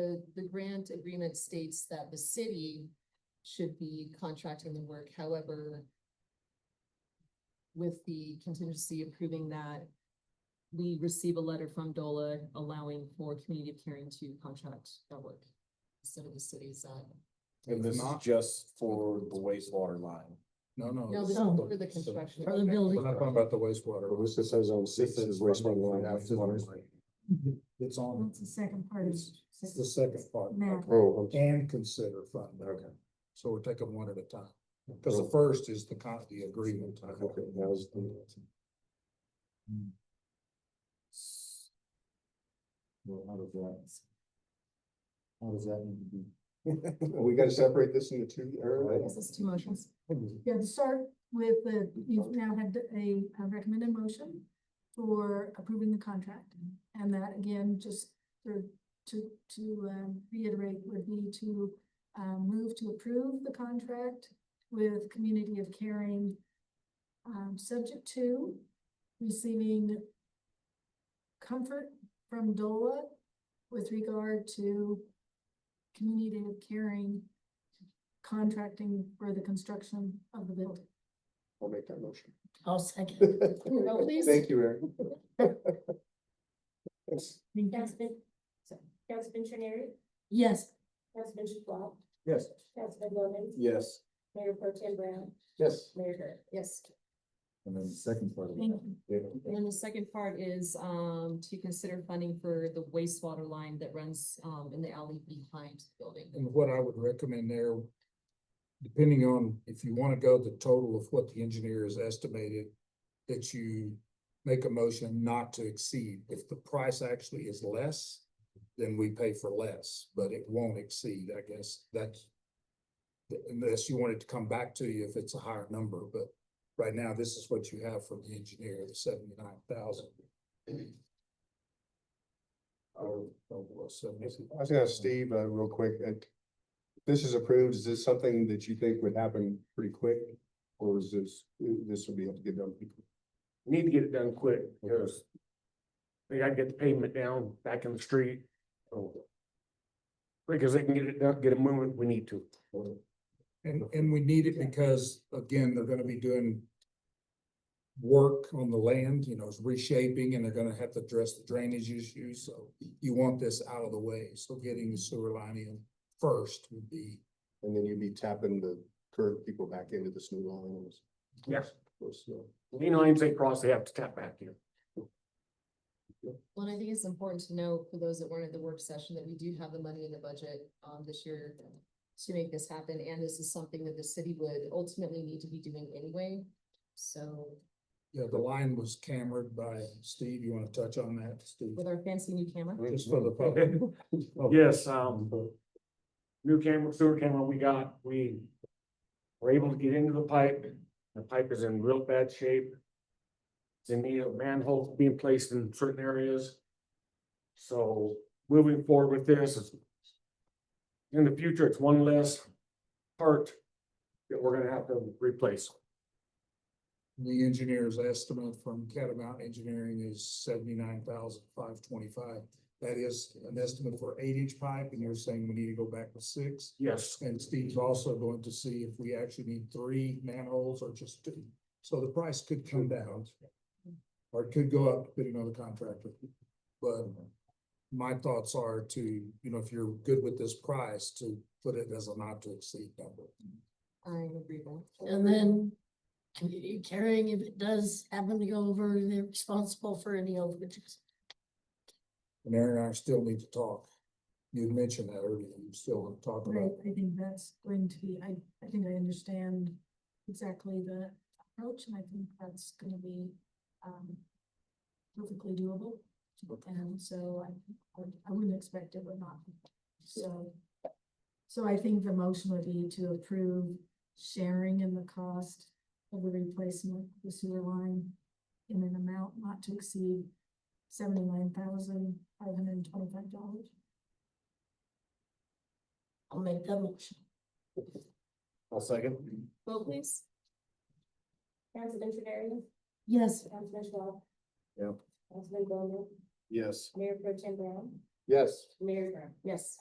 the, the grant agreement states that the city should be contracting the work, however, with the contingency approving that, we receive a letter from DOLA allowing for community of caring to contract that work instead of the city's, uh, And It's this is not- just for the wastewater line. No, Oh, no, no. this is No. for the construction. Or the building. We're not talking about the wastewater. This says on This is wastewater line. Wastewater line. It's on, That's the second part of. it's it's the second part. Matt. Oh, And consider fund. Okay. So we're taking one at a time, because the first is the con, the agreement. Hmm. Well, how does that? How does that need to be? We gotta separate this into two This is two motions. Yeah, to start with the, you've now had a a recommended motion for approving the contract. And that again, just to, to, to um, reiterate would be to um, move to approve the contract with Community of Caring, um, subject to receiving comfort from DOLA with regard to Community of Caring contracting for the construction of the building. I'll make that motion. I'll second. Oh, No, please. Thank you, Aaron. Yes. Councilman, Councilman Trenary, Yes, Councilman Schwab, Yes. Councilman Bowman, Yes. Mayor Pro Tem Brown, Yes. Mayor Gurke. Yes. And then the second part of thank you. And then the second part is, um, to consider funding for the wastewater line that runs, um, in the alley behind the building. And what I would recommend there, depending on if you want to go the total of what the engineer has estimated, that you make a motion not to exceed. If the price actually is less, then we pay for less, but it won't exceed, I guess. That's unless you want it to come back to you if it's a higher number, but right now, this is what you have from the engineer, the seventy-nine thousand. Or, or seventy. I was gonna ask Steve, uh, real quick, uh, if this is approved, is this something that you think would happen pretty quick? Or is this, this would be able to get done? We need to get it done quick, because they gotta get the pavement down back in the street. so. Quick as they can get it done, get it moving, we need to. And, and we need it because, again, they're gonna be doing work on the land, you know, it's reshaping, and they're gonna have to address the drainage issue, so you want this out of the way, so getting the sewer line in first would be. And then you'd be tapping the current people back into this new line. Yes. Yes. Lean lines they cross, they have to tap back in. Well, and I think it's important to know for those that weren't at the work session that we do have the money in the budget um this year to make this happen, and this is something that the city would ultimately need to be doing anyway. So Yeah, the line was cambered by Steve, you wanna touch on that, Steve? with our fancy new camera, Just for the public. Yes, um, new camera, sewer camera we got, we were able to get into the pipe. The pipe is in real bad shape. It's in need of manholes being placed in certain areas. So moving forward with this is in the future, it's one less part that we're gonna have to replace. The engineer's estimate from Catamount Engineering is seventy-nine thousand five twenty-five. That is an estimate for eight-inch pipe, and you're saying we need to go back to six. Yes, And Steve's also going to see if we actually need three manholes or just two. So the price could come down. Or it could go up depending on the contractor. But my thoughts are to, you know, if you're good with this price, to put it as a not to exceed number. I agree with. that. And then community caring, if it does happen to go over, they're responsible for any overages. And Aaron and I still need to talk. You mentioned that earlier, you still want to talk Right, about, I think that's going to be, I, I think I understand exactly the approach, and I think that's gonna be, um, perfectly doable. And so I, I wouldn't expect it would not, be. so. So I think the motion would be to approve sharing in the cost of the replacement, of the sewer line in an amount not to exceed seventy-nine thousand five hundred and twenty-five dollars. I'll make that motion. I'll second. Vote please. Councilman Trenary, Yes, Councilman Schwab. Yeah. Councilman Bowman, Yes. Mayor Pro Tem Brown, Yes. Mayor Gurke. Yes.